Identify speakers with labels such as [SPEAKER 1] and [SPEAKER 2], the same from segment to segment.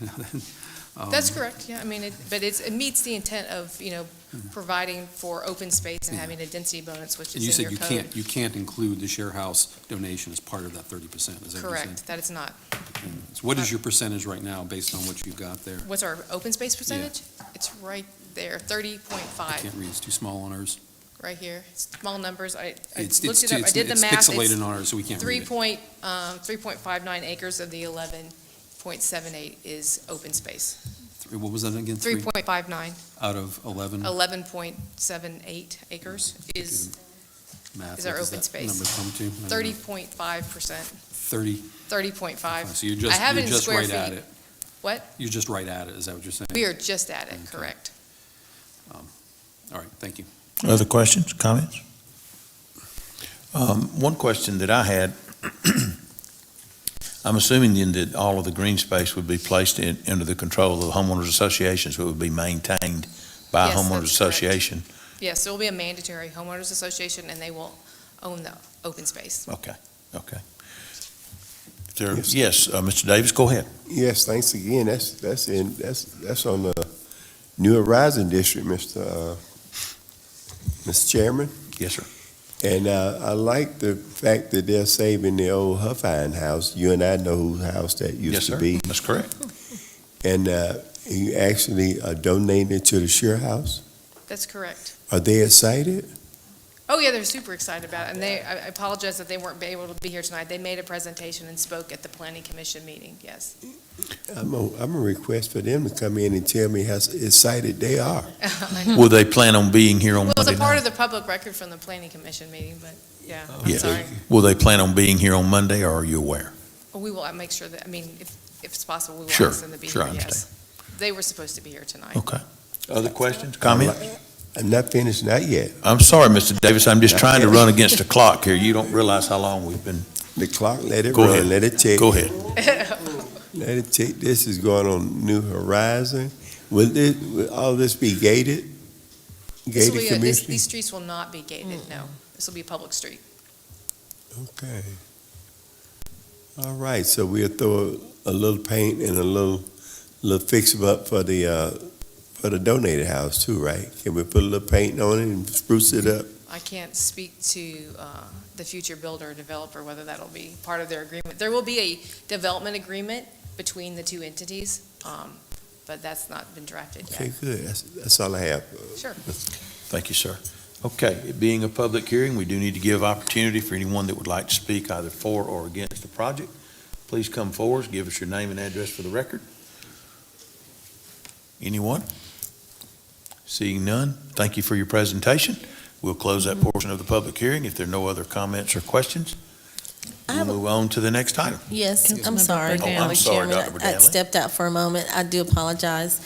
[SPEAKER 1] Um,
[SPEAKER 2] That's correct, yeah, I mean, it, but it's, it meets the intent of, you know, providing for open space and
[SPEAKER 1] Yeah.
[SPEAKER 2] having a density bonus, which
[SPEAKER 1] Mm-hmm. And you
[SPEAKER 2] is
[SPEAKER 1] said
[SPEAKER 2] in your
[SPEAKER 1] you
[SPEAKER 2] code.
[SPEAKER 1] can't, you can't include the share house donation as part of that thirty percent, is that what you're saying?
[SPEAKER 2] Correct, Uh, that is not.
[SPEAKER 1] So What is your percentage right now, based on what you've got there?
[SPEAKER 2] What's our open space percentage? It's right there, thirty point
[SPEAKER 1] I
[SPEAKER 2] five,
[SPEAKER 1] can't read, it's too small on ours.
[SPEAKER 2] right here. Small numbers, I, I
[SPEAKER 1] It's-
[SPEAKER 2] looked
[SPEAKER 1] it's
[SPEAKER 2] it up, I
[SPEAKER 1] it's-
[SPEAKER 2] did the
[SPEAKER 1] it's
[SPEAKER 2] math.
[SPEAKER 1] pixelated
[SPEAKER 2] It's
[SPEAKER 1] on ours, so we can't
[SPEAKER 2] three
[SPEAKER 1] read it.
[SPEAKER 2] point, um, three point five nine acres of the eleven point seven eight is open space.
[SPEAKER 1] Three- Mm-hmm. What was that again?
[SPEAKER 2] Three point Oh, five nine,
[SPEAKER 1] Out of eleven?
[SPEAKER 2] eleven point seven eight acres is
[SPEAKER 1] Math,
[SPEAKER 2] is our
[SPEAKER 1] what does
[SPEAKER 2] open
[SPEAKER 1] that
[SPEAKER 2] space.
[SPEAKER 1] Number come to? I don't know.
[SPEAKER 2] thirty point five percent,
[SPEAKER 1] Thirty,
[SPEAKER 2] thirty point five.
[SPEAKER 1] so you're
[SPEAKER 2] I
[SPEAKER 1] just,
[SPEAKER 2] have it
[SPEAKER 1] you're
[SPEAKER 2] in
[SPEAKER 1] just
[SPEAKER 2] square
[SPEAKER 1] right at
[SPEAKER 2] feet.
[SPEAKER 1] it.
[SPEAKER 2] What?
[SPEAKER 1] You're just right at it, is that what you're saying?
[SPEAKER 2] We are just at it,
[SPEAKER 1] Okay.
[SPEAKER 2] correct.
[SPEAKER 1] All right, thank you.
[SPEAKER 3] Other questions, comments? Um, One question that I had, I'm assuming then that all of the green space would be placed in, under the control of homeowners associations, but would be maintained by a
[SPEAKER 2] Yes,
[SPEAKER 3] homeowners
[SPEAKER 2] that's correct.
[SPEAKER 3] association?
[SPEAKER 2] Yes, there will be a mandatory homeowners association, and they will own the open space.
[SPEAKER 3] Okay, okay. If there- Yes, uh, Mr. Davis, go ahead.
[SPEAKER 4] Yes, thanks again. That's, that's in, that's, that's on the New Horizon District, Mr. uh, Mr. Chairman.
[SPEAKER 3] Yes, sir.
[SPEAKER 4] And uh, I like the fact that they're saving the old Huffine house. You and I know whose house that
[SPEAKER 3] Yes,
[SPEAKER 4] used
[SPEAKER 3] sir.
[SPEAKER 4] to be.
[SPEAKER 3] That's correct.
[SPEAKER 4] And uh, you actually uh, donated it to the Shear House.
[SPEAKER 2] That's correct.
[SPEAKER 4] Are they excited?
[SPEAKER 2] Oh, yeah, they're super excited about it, and they, I I apologize that they weren't able to be here tonight. They made a presentation and spoke at the planning commission meeting, yes.
[SPEAKER 4] I'm a, I'm a request for them to come in and tell me how excited they are.
[SPEAKER 2] I know.
[SPEAKER 3] Will they plan on being here on
[SPEAKER 2] Well, it's
[SPEAKER 3] Monday
[SPEAKER 2] a part
[SPEAKER 3] night?
[SPEAKER 2] of the public record from the planning commission meeting, but, yeah, I'm
[SPEAKER 3] Oh, Yeah.
[SPEAKER 2] sorry.
[SPEAKER 3] Will they plan on being here on Monday, or are you aware?
[SPEAKER 2] But We will, I make sure that, I mean, if, if it's possible, we will
[SPEAKER 3] Sure,
[SPEAKER 2] ask them to be
[SPEAKER 3] sure,
[SPEAKER 2] here,
[SPEAKER 3] I
[SPEAKER 2] yes. They were supposed to be here tonight.
[SPEAKER 3] Okay. Other questions, comments?
[SPEAKER 4] I'm not finished, not yet.
[SPEAKER 3] I'm sorry, Mr. Davis, I'm just trying to run against the clock here. You don't realize how long we've been.
[SPEAKER 4] The clock, let it
[SPEAKER 3] Go ahead.
[SPEAKER 4] run, let it tick.
[SPEAKER 3] Go ahead.
[SPEAKER 4] Let it take, this is going on New Horizon. Will this, will all this be gated?
[SPEAKER 2] This will
[SPEAKER 4] Gated
[SPEAKER 2] be a- this-
[SPEAKER 4] community?
[SPEAKER 2] These streets will not be gated, no.
[SPEAKER 3] Mm.
[SPEAKER 2] This will be a public street.
[SPEAKER 4] Okay. All right, so we'll throw a little paint and a little, little fix 'em up for the, uh, for the donated house too, right? Can we put a little paint on it and spruce it up?
[SPEAKER 2] I can't speak to uh, the future builder or developer, whether that'll be part of their agreement. There will be a development agreement between the two entities, um, but that's not been drafted
[SPEAKER 4] Okay,
[SPEAKER 2] yet.
[SPEAKER 4] good. That's, that's all I have.
[SPEAKER 2] Sure.
[SPEAKER 3] Thank you, sir. Okay, it being a public hearing, we do need to give opportunity for anyone that would like to speak either for or against the project. Please come forward, give us your name and address for the record. Anyone? Seeing none, thank you for your presentation. We'll close that portion of the public hearing if there are no other comments or questions.
[SPEAKER 5] I
[SPEAKER 3] We'll
[SPEAKER 5] have a-
[SPEAKER 3] move on to the next item.
[SPEAKER 5] Yes, I'm sorry.
[SPEAKER 3] Oh, I'm sorry, Dr.
[SPEAKER 5] I
[SPEAKER 3] Bradley.
[SPEAKER 5] stepped out for a moment. I do apologize.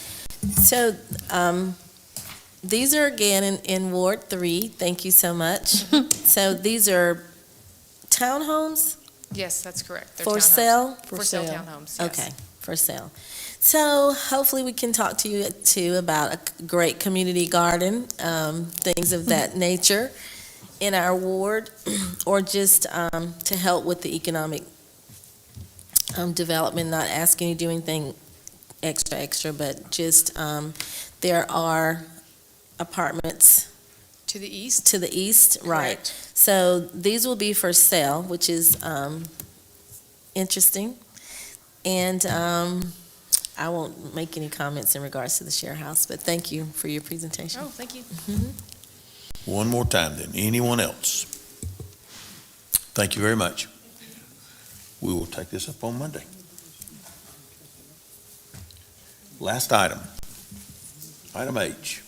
[SPEAKER 5] So, um, these are again in, in Ward Three. Thank you so much. So these are townhomes
[SPEAKER 2] Yes, that's correct. They're
[SPEAKER 5] for
[SPEAKER 2] townhomes.
[SPEAKER 5] sale?
[SPEAKER 2] For sale townhomes, yes.
[SPEAKER 5] Okay, for sale. So hopefully we can talk to you too about a c- great community garden, um, things of that
[SPEAKER 2] Mm-hmm.
[SPEAKER 5] nature in our ward, or just, um, to help with the economic, um, development, not asking you to do anything extra, extra, but just, um, there are apartments
[SPEAKER 2] To the east?
[SPEAKER 5] to the east, right?
[SPEAKER 2] Correct.
[SPEAKER 5] So these will be for sale, which is um, interesting. And um, I won't make any comments in regards to the share house, but thank you for your presentation.
[SPEAKER 2] Oh, thank you.
[SPEAKER 3] One more time then. Anyone else? Thank you very much. We will take this up on Monday. Last item. Item H.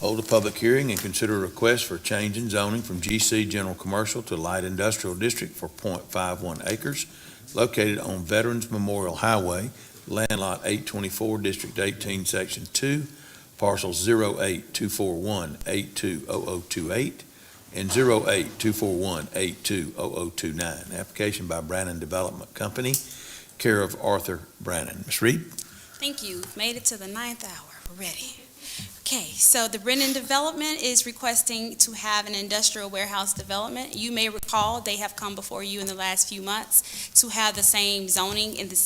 [SPEAKER 3] Hold a public hearing and consider a request for change in zoning from GC General Commercial to Light Industrial District for .51 acres located on Veterans Memorial Highway, Land Lot 824, District 18, Section 2, parcels 08241820028 and 08241820029. oh Application by Brannon Development Company, care of Arthur Brannon. Ms. Reed?
[SPEAKER 6] Thank you. We've Made it to the ninth hour. We're ready. Okay, so the Brennan Development is requesting to have an industrial warehouse development. You may recall, they have come before you in the last few months to have the same zoning in the